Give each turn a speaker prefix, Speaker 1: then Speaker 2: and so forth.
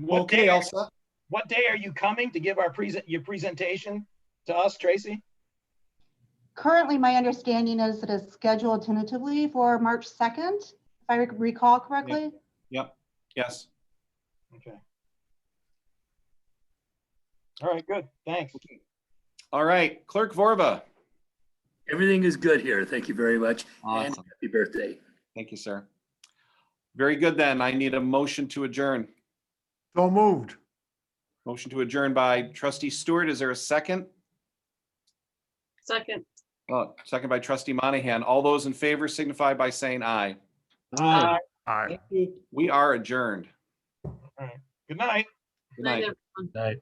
Speaker 1: What
Speaker 2: Okay,
Speaker 1: day-
Speaker 2: all set?
Speaker 1: What day are you coming to give our present, your presentation to us, Tracy?
Speaker 3: Currently, my understanding is that it's scheduled tentatively for March 2nd, if I rec- recall correctly.
Speaker 2: Yes.
Speaker 1: Okay. All right, good, thanks.
Speaker 2: All right, Clerk Vorba.
Speaker 4: Everything is good here. Thank you very much. And
Speaker 2: Awesome.
Speaker 4: happy birthday.
Speaker 2: Thank you, sir. Very good then. I need a motion to adjourn.
Speaker 5: So moved.
Speaker 2: Motion to adjourn by trustee Stewart. Is there a second?
Speaker 6: Second.
Speaker 2: Uh, second by trustee Monahan. All those in favor signify by saying aye.
Speaker 1: Aye.
Speaker 5: Aye.
Speaker 2: We are adjourned.
Speaker 1: Good night.
Speaker 2: Good night.
Speaker 6: everyone.